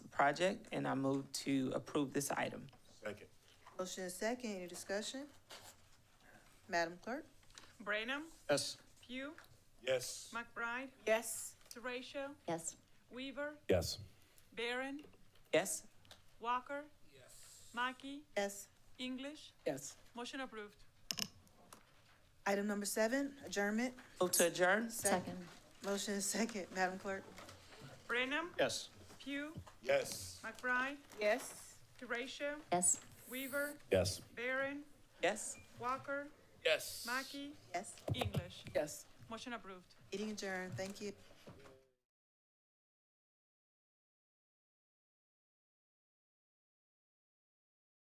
project, and I move to approve this item. Second. Motion is second, any discussion? Madam Clerk? Branham, Yes. Pugh, Yes. McBride, Yes. Teratio, Yes. Weaver, Yes. Barron, Yes? Walker. Yes. Mackey, Yes. English, Yes. motion approved. Item number seven, adjournment. Move to adjourn? Second. Motion is second, Madam Clerk? Branham, Yes. Pugh, Yes. McBride, Yes. Teratio, Yes. Weaver, Yes. Barron, Yes? Walker, Yes. Mackey, Yes. English, Yes. motion approved. Meeting adjourned, thank you.